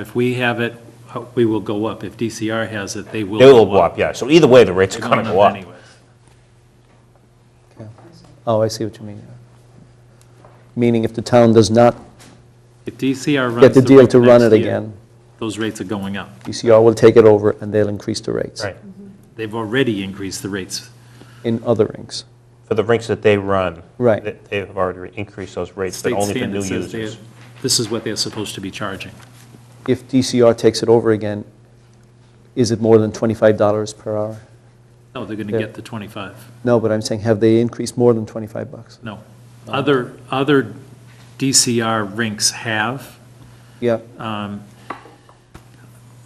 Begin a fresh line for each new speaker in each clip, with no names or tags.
If we have it, uh, we will go up. If DCR has it, they will.
They will go up, yeah. So either way, the rates are
They're
going to
going
go up.
anyways.
Oh, I see what you mean. Meaning if the town does not
If DCR runs.
get the deal
rate
to run it
next year,
again,
Those rates are going up.
DCR will take it over and they'll increase the rates.
Right.
They've already increased the rates.
In other rings.
For the rinks that they run.
Right.
they- They've already increased those rates, but
State
only for
standard
new
says they're-
users.
this is what they're supposed to be charging.
If DCR takes it over again, is it more than $25 per hour?
No, they're going
Yeah.
to get the 25.
No, but I'm saying, have they increased more than 25 bucks?
No. Other, other DCR rinks have.
Yeah,
Uh.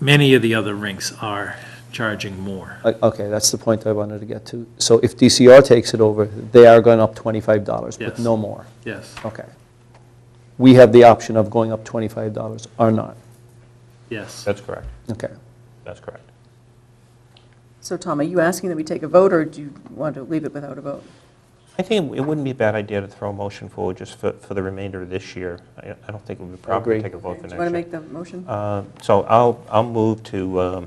Many of the other rinks are charging more.
I- okay, that's the point I wanted to get to. So if DCR takes it over, they are going up $25, but
Yes.
no more?
Yes,
Okay. We have the option of going up $25 or not?
yes.
That's correct.
Okay.
That's correct.
So Tom, are you asking that we take a vote, or do you want to leave it without a vote?
I think it wouldn't be a bad idea to throw a motion forward just for, for the remainder of this year. I I don't think it would be proper
agree.
to take a vote for
Do you
next
want to
year.
make the motion?
Uh, So I'll, I'll move to um,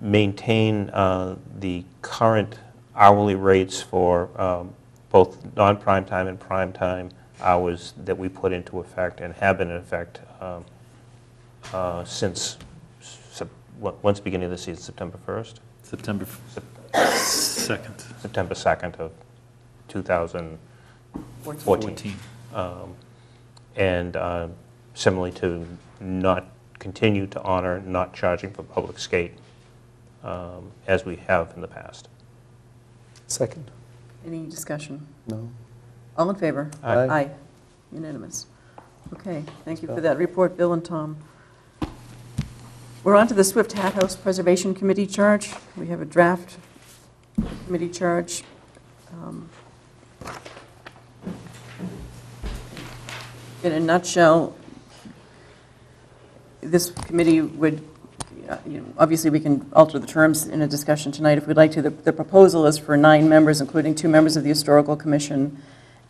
maintain uh, the current hourly rates for um, both non-prime time and prime time hours that we put into effect and have been in effect um, uh, since, Sep- on- once beginning of the season, September 1st,
September 2nd,
September 2nd of 2014.
14.
and uh, similarly to not continue to honor not charging for public skate um, as we have in the past.
Second.
Any discussion?
No.
All in favor?
Aye. Aye.
Aye. Unanimous. Okay, thank you for that report, Bill and Tom. We're on to the Swift Hat House Preservation Committee charge. We have a draft committee charge. Um, In a nutshell, this committee would, uh, you know, obviously, we can alter the terms in a discussion tonight if we'd like to. The- The proposal is for nine members, including two members of the Historical Commission,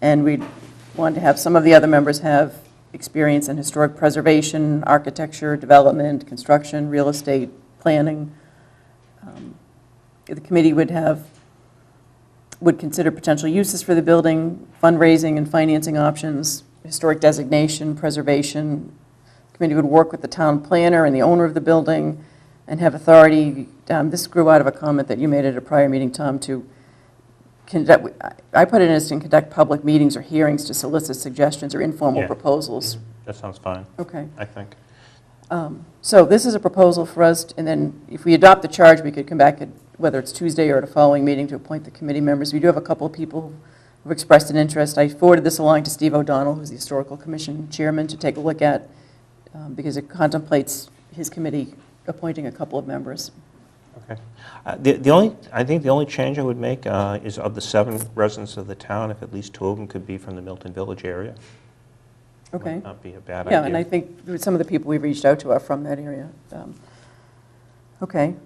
and we want to have some of the other members have experience in historic preservation, architecture, development, construction, real estate, planning. Um, The committee would have, would consider potential uses for the building, fundraising and financing options, historic designation, preservation. Committee would work with the town planner and the owner of the building and have authority, um, this grew out of a comment that you made at a prior meeting, Tom, to conduct, I put it as to conduct public meetings or hearings to solicit suggestions or informal
Yeah.
proposals.
That sounds fine,
Okay.
I think.
Um, So this is a proposal for us, and then if we adopt the charge, we could come back, at whether it's Tuesday or at a following meeting, to appoint the committee members. We do have a couple of people who've expressed an interest. I forwarded this along to Steve O'Donnell, who's the Historical Commission Chairman, to take a look at, um, because it contemplates his committee appointing a couple of members.
Okay. Uh, The the only, I think the only change I would make uh, is of the seven residents of the town, if at least two of them could be from the Milton Village area.
Okay?
Might not be a bad idea.
Yeah, and I think that some of the people we've reached out to are from that area. Um, Okay.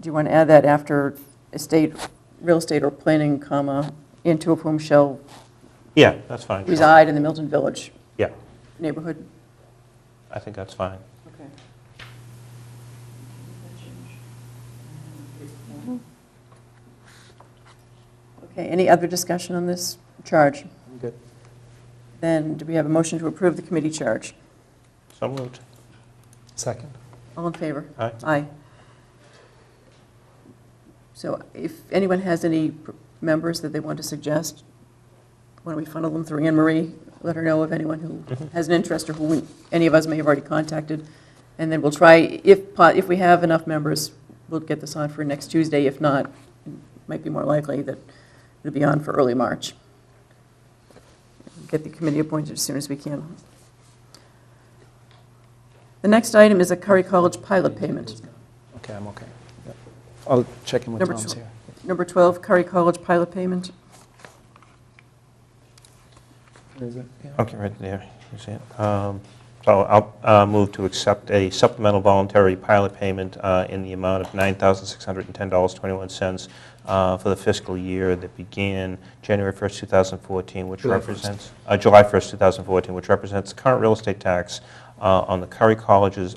Do you want to add that after estate, real estate or planning, comma, and two of whom shall
Yeah, that's fine. sure.
reside in the Milton Village
Yeah,
neighborhood?
I think that's fine.
Okay. Okay, any other discussion on this charge?
Good.
Then do we have a motion to approve the committee charge?
So moved.
Second.
All in favor?
Aye.
Aye. So if anyone has any pr- members that they want to suggest, why don't we funnel them through Anne Marie? Let her know of anyone who has an interest or who we- any of us may have already contacted. And then we'll try, if, po- if we have enough members, we'll get this on for next Tuesday. If not, it might be more likely that it'll be on for early March. Get the committee appointed as soon as we can. The next item is a Curry College pilot payment.
Okay, I'm okay. Yep. I'll check in with
Number
Tom's
two.
here.
Number 12, Curry College pilot payment.
Is it? Yeah.
Okay, right there, you see it. Um, So I'll uh, move to accept a supplemental voluntary pilot payment uh, in the amount of $9,610.21 uh, for the fiscal year that began January 1st, 2014, which
July
represents... uh, July 1st, 2014, which represents the current real estate tax uh, on the Curry College's